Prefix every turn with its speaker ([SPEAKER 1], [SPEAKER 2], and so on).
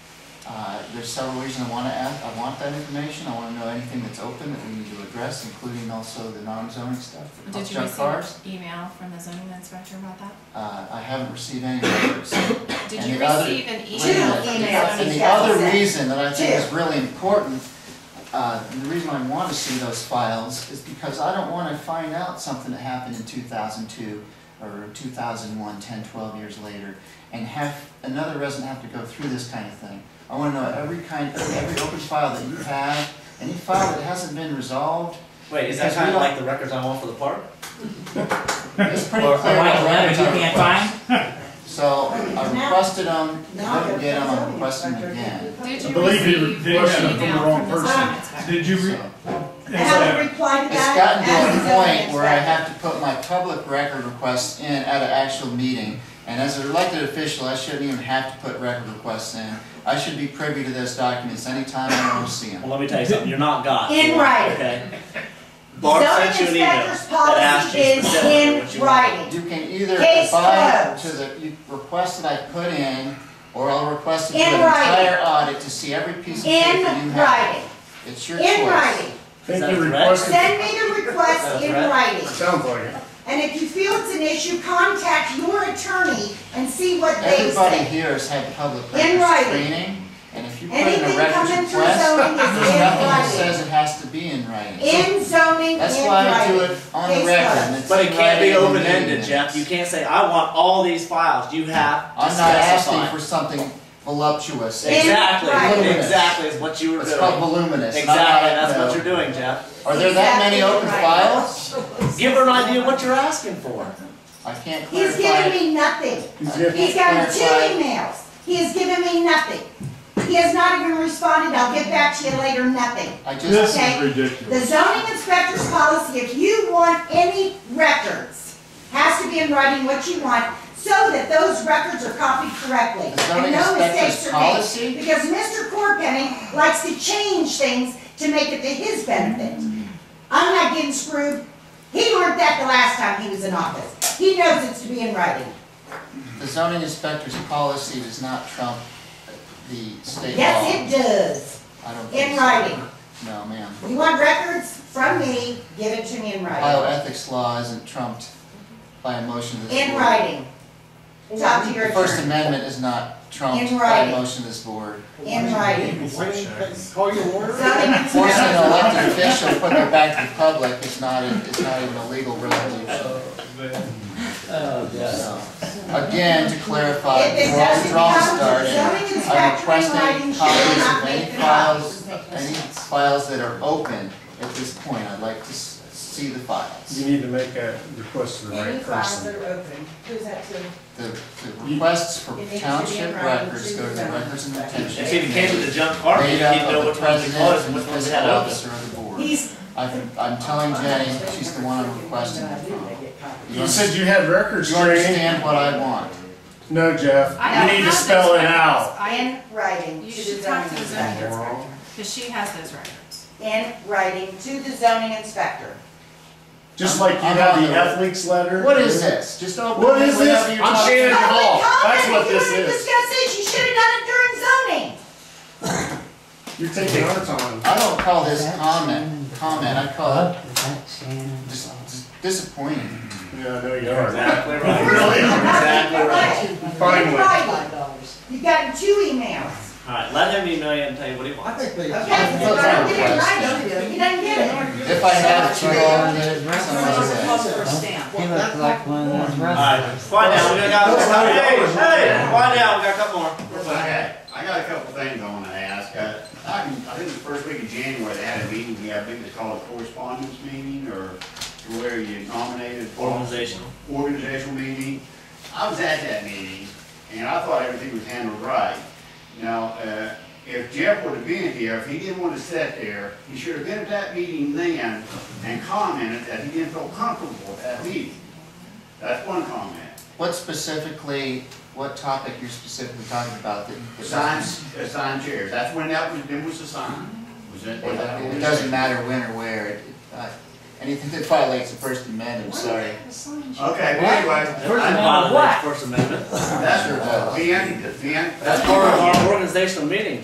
[SPEAKER 1] Uh, There's several reasons I want to ask, I want that information, I want to know anything that's open that we need to address, including also the non-zoning stuff for
[SPEAKER 2] Did you
[SPEAKER 1] junk cars.
[SPEAKER 2] receive an email from the zoning inspector about that?
[SPEAKER 1] Uh, I haven't received any letters.
[SPEAKER 2] Did
[SPEAKER 1] And
[SPEAKER 2] you
[SPEAKER 1] the other-
[SPEAKER 2] receive an
[SPEAKER 1] Two
[SPEAKER 2] email from
[SPEAKER 3] emails,
[SPEAKER 2] the
[SPEAKER 1] And
[SPEAKER 2] zoning?
[SPEAKER 1] the
[SPEAKER 3] Yeah,
[SPEAKER 1] other
[SPEAKER 3] that's it.
[SPEAKER 1] reason that I think is
[SPEAKER 3] Two.
[SPEAKER 1] really important, uh, the reason I want to see those files is because I don't want to find out something that happened in two thousand two or 2001, 10, 12 years later, and have, another resident have to go through this kind of thing. I want to know every kind, every open file that you have, any file that hasn't been resolved,
[SPEAKER 4] Wait, is that
[SPEAKER 1] Because we
[SPEAKER 4] kind of
[SPEAKER 1] don't-
[SPEAKER 4] like the records I want for the park?
[SPEAKER 1] it's pretty
[SPEAKER 4] Or- or
[SPEAKER 1] clear.
[SPEAKER 5] Write a
[SPEAKER 1] what
[SPEAKER 5] letter you
[SPEAKER 1] records I
[SPEAKER 5] can't
[SPEAKER 1] request.
[SPEAKER 5] find?
[SPEAKER 1] So I requested them,
[SPEAKER 3] Now
[SPEAKER 1] didn't get them,
[SPEAKER 3] they're-
[SPEAKER 1] I'm requesting them again.
[SPEAKER 2] Did
[SPEAKER 6] I
[SPEAKER 2] you
[SPEAKER 6] believe he
[SPEAKER 2] receive
[SPEAKER 6] did
[SPEAKER 2] an
[SPEAKER 6] have it from the
[SPEAKER 2] email
[SPEAKER 6] wrong
[SPEAKER 2] from the
[SPEAKER 3] person.
[SPEAKER 2] zoning inspector?
[SPEAKER 6] Did you re-
[SPEAKER 1] So-
[SPEAKER 3] I have to
[SPEAKER 6] and
[SPEAKER 3] reply to
[SPEAKER 1] It's
[SPEAKER 3] that
[SPEAKER 1] gotten
[SPEAKER 3] as
[SPEAKER 1] to
[SPEAKER 3] a
[SPEAKER 1] a point
[SPEAKER 3] zoning
[SPEAKER 1] where I
[SPEAKER 3] inspector.
[SPEAKER 1] have to put my public record requests in at an actual meeting. And as an elected official, I shouldn't even have to put record requests in. I should be privy to those documents anytime I want to see
[SPEAKER 4] Well,
[SPEAKER 1] them.
[SPEAKER 4] let me tell you something, you're not God.
[SPEAKER 3] In writing.
[SPEAKER 4] Okay? Barb sent you an email
[SPEAKER 3] Zoning inspector's policy
[SPEAKER 4] that asked you
[SPEAKER 3] is
[SPEAKER 4] specifically what
[SPEAKER 3] in
[SPEAKER 4] you wanted.
[SPEAKER 3] writing.
[SPEAKER 1] You can either
[SPEAKER 3] Case
[SPEAKER 1] abide
[SPEAKER 3] closed.
[SPEAKER 1] to the you- request that I put in, or I'll request it
[SPEAKER 3] In
[SPEAKER 1] for the
[SPEAKER 3] writing.
[SPEAKER 1] entire audit to see every piece of paper you
[SPEAKER 3] In
[SPEAKER 1] have.
[SPEAKER 3] writing,
[SPEAKER 1] It's your choice.
[SPEAKER 3] in writing.
[SPEAKER 4] Is
[SPEAKER 6] Think
[SPEAKER 4] that
[SPEAKER 6] they
[SPEAKER 4] a threat?
[SPEAKER 6] requested,
[SPEAKER 3] Send me the request in
[SPEAKER 4] That's right.
[SPEAKER 3] writing.
[SPEAKER 6] sounds like it.
[SPEAKER 3] And if you feel it's an issue, contact your attorney and see what they
[SPEAKER 1] Everybody
[SPEAKER 3] say.
[SPEAKER 1] here has had public
[SPEAKER 3] In
[SPEAKER 1] records
[SPEAKER 3] writing.
[SPEAKER 1] training, and if you put in a
[SPEAKER 3] Anything
[SPEAKER 1] records
[SPEAKER 3] coming through
[SPEAKER 1] request,
[SPEAKER 3] zoning
[SPEAKER 1] there's nothing that
[SPEAKER 3] is in
[SPEAKER 1] says
[SPEAKER 3] writing.
[SPEAKER 1] it has to be in writing. So
[SPEAKER 3] In zoning, in writing.
[SPEAKER 1] That's why I do it on the
[SPEAKER 3] Case
[SPEAKER 1] record.
[SPEAKER 3] closed.
[SPEAKER 1] and it's
[SPEAKER 4] But it
[SPEAKER 1] in
[SPEAKER 4] can't be
[SPEAKER 1] writing in the
[SPEAKER 4] open-ended,
[SPEAKER 1] meeting
[SPEAKER 4] Jeff. You
[SPEAKER 1] minutes.
[SPEAKER 4] can't say, I want all these files. You have to
[SPEAKER 1] I'm not asking
[SPEAKER 4] specify.
[SPEAKER 1] for something voluptuous.
[SPEAKER 3] In writing.
[SPEAKER 4] Exactly, exactly is what you were
[SPEAKER 1] It's called
[SPEAKER 4] doing.
[SPEAKER 1] voluminous.
[SPEAKER 4] Exactly,
[SPEAKER 1] and I'm not-
[SPEAKER 4] that's what
[SPEAKER 1] no.
[SPEAKER 4] you're doing, Jeff.
[SPEAKER 1] Are there that many
[SPEAKER 3] Exactly
[SPEAKER 1] open
[SPEAKER 3] right.
[SPEAKER 1] files?
[SPEAKER 4] Give her an idea what you're asking for.
[SPEAKER 1] I can't
[SPEAKER 3] He's
[SPEAKER 1] clarify.
[SPEAKER 3] giving me nothing.
[SPEAKER 6] He's
[SPEAKER 1] I
[SPEAKER 6] giving-
[SPEAKER 3] He's
[SPEAKER 1] can't
[SPEAKER 3] gotten two
[SPEAKER 1] clarify.
[SPEAKER 3] emails. He has given me nothing. He has not even responded, I'll get back to you later, nothing.
[SPEAKER 1] I
[SPEAKER 6] This
[SPEAKER 1] just,
[SPEAKER 3] Okay.
[SPEAKER 6] is
[SPEAKER 3] The
[SPEAKER 6] ridiculous.
[SPEAKER 3] zoning inspector's policy, if you want any records, has to be in writing what you want, so that those records are copied correctly.
[SPEAKER 1] The zoning
[SPEAKER 3] and no mistakes
[SPEAKER 1] inspector's
[SPEAKER 3] are made.
[SPEAKER 1] policy?
[SPEAKER 3] Because Mr. Corpenny likes to change things to make it to his benefit. I'm not getting screwed. He learned that the last time he was in office. He knows it's to be in writing.
[SPEAKER 1] the zoning inspector's policy does not trump the state law.
[SPEAKER 3] Yes, it does,
[SPEAKER 1] I don't think
[SPEAKER 3] in
[SPEAKER 1] so.
[SPEAKER 3] writing.
[SPEAKER 1] No, ma'am.
[SPEAKER 3] You want records from me, give it to me in
[SPEAKER 1] Ohio
[SPEAKER 3] writing.
[SPEAKER 1] ethics law isn't trumped by a motion to this board.
[SPEAKER 3] In writing. Talk to your
[SPEAKER 1] The First
[SPEAKER 3] attorney,
[SPEAKER 1] Amendment is not trumped
[SPEAKER 3] In
[SPEAKER 1] by a
[SPEAKER 3] writing.
[SPEAKER 1] motion of this board.
[SPEAKER 3] in writing.
[SPEAKER 7] Call your
[SPEAKER 3] Zoning
[SPEAKER 7] lawyer?
[SPEAKER 1] Forcing an
[SPEAKER 3] inspector.
[SPEAKER 1] elected official to put it back to the public is not, a- is not even a legal resolution.
[SPEAKER 4] Oh, yes.
[SPEAKER 1] So, Again, to clarify,
[SPEAKER 3] If it
[SPEAKER 1] before I
[SPEAKER 3] doesn't
[SPEAKER 1] withdraw
[SPEAKER 3] become a
[SPEAKER 1] starting,
[SPEAKER 3] zoning
[SPEAKER 1] I'm
[SPEAKER 3] inspector in
[SPEAKER 1] requesting
[SPEAKER 3] writing, she will
[SPEAKER 1] copies
[SPEAKER 3] not
[SPEAKER 1] of
[SPEAKER 3] make
[SPEAKER 1] any
[SPEAKER 3] the
[SPEAKER 1] files,
[SPEAKER 3] files.
[SPEAKER 1] any files that are open at this point. I'd like to s- see the files.
[SPEAKER 7] You need to make a request to the right person.
[SPEAKER 3] are open, who's that to?
[SPEAKER 1] The the requests for
[SPEAKER 3] It needs to be in
[SPEAKER 1] township
[SPEAKER 3] writing.
[SPEAKER 1] records go to the records and retention.
[SPEAKER 4] And see, if it came to the junk car, you
[SPEAKER 1] Made
[SPEAKER 4] didn't
[SPEAKER 1] up
[SPEAKER 4] know
[SPEAKER 1] of the
[SPEAKER 4] which ones to
[SPEAKER 1] president
[SPEAKER 4] close
[SPEAKER 1] and
[SPEAKER 4] and
[SPEAKER 1] the
[SPEAKER 4] which ones to
[SPEAKER 1] fiscal
[SPEAKER 4] had open.
[SPEAKER 1] officer of the board.
[SPEAKER 3] He's,
[SPEAKER 1] I've- I'm telling Jenny, she's the one I'm requesting it from.
[SPEAKER 7] You said you had records
[SPEAKER 1] You
[SPEAKER 7] training.
[SPEAKER 1] understand what I want?
[SPEAKER 7] No, Jeff,
[SPEAKER 2] I don't
[SPEAKER 7] you need to
[SPEAKER 2] have
[SPEAKER 7] spell
[SPEAKER 2] those
[SPEAKER 7] it out.
[SPEAKER 2] records. I,
[SPEAKER 3] in writing.
[SPEAKER 2] you
[SPEAKER 3] to
[SPEAKER 2] should
[SPEAKER 3] the
[SPEAKER 2] talk to the
[SPEAKER 3] zoning
[SPEAKER 2] zoning
[SPEAKER 3] inspector.
[SPEAKER 2] inspector, because she has those records.
[SPEAKER 3] In writing to the zoning inspector.
[SPEAKER 7] Just like you
[SPEAKER 1] I'm
[SPEAKER 7] have
[SPEAKER 1] on
[SPEAKER 7] the
[SPEAKER 1] the-
[SPEAKER 7] athlete's letter.
[SPEAKER 1] What is this? Just open
[SPEAKER 7] What
[SPEAKER 1] it
[SPEAKER 7] is this?
[SPEAKER 1] whenever you're
[SPEAKER 7] I'm
[SPEAKER 1] talking.
[SPEAKER 7] Shannon Hall.
[SPEAKER 3] Public comment,
[SPEAKER 7] That's what
[SPEAKER 3] if you
[SPEAKER 7] this
[SPEAKER 3] wanna
[SPEAKER 7] is.
[SPEAKER 3] Discuss this, you should have done it during zoning.
[SPEAKER 7] You're taking our time.
[SPEAKER 1] I don't call this
[SPEAKER 5] That's
[SPEAKER 1] comment, comment, I call it
[SPEAKER 5] That's Shannon's
[SPEAKER 1] dis-
[SPEAKER 5] fault.
[SPEAKER 1] dis- disappointing.
[SPEAKER 7] Yeah, I know you
[SPEAKER 4] You're
[SPEAKER 7] are.
[SPEAKER 4] exactly right.
[SPEAKER 7] Really?
[SPEAKER 3] You're not
[SPEAKER 4] Exactly
[SPEAKER 3] in
[SPEAKER 4] right.
[SPEAKER 3] writing.
[SPEAKER 7] Finally.
[SPEAKER 3] In writing. You've gotten two emails.
[SPEAKER 4] Alright, let him email you and tell you what he wants.
[SPEAKER 3] Okay, if I don't get it right, you don't get it.
[SPEAKER 1] If I have to, I'll get it some other way.
[SPEAKER 5] He looks like one of those
[SPEAKER 4] Alright,
[SPEAKER 5] rustlers.
[SPEAKER 4] find out, we got a couple, hey, hey, find out, we got a couple more. We're fine.
[SPEAKER 8] Okay, I got a couple things I wanna ask. Uh, I can, I think the first week of January, they had a meeting, yeah, I think they called it correspondence meeting, or where you nominated. for-
[SPEAKER 4] Organizational.
[SPEAKER 8] Organizational meeting. I was at that meeting, and I thought everything was handled right. Now, uh, if Jeff would have been here, if he didn't want to sit there, he should have been at that meeting then and commented that he didn't feel comfortable at that meeting. That's one comment.
[SPEAKER 1] What specifically, what topic you're specifically talking about that? that
[SPEAKER 8] Sign,
[SPEAKER 1] doesn't-
[SPEAKER 8] uh, sign chairs, that's when that was, then was the sign, was that? was that-
[SPEAKER 1] It doesn't matter when or where, it- uh, anything that violates the First Amendment, I'm sorry.
[SPEAKER 8] Okay, well, anyway,
[SPEAKER 5] First of
[SPEAKER 8] I-
[SPEAKER 5] all, what?
[SPEAKER 4] First Amendment.
[SPEAKER 8] that's, Ben, Ben.
[SPEAKER 4] That's part of our organizational meeting,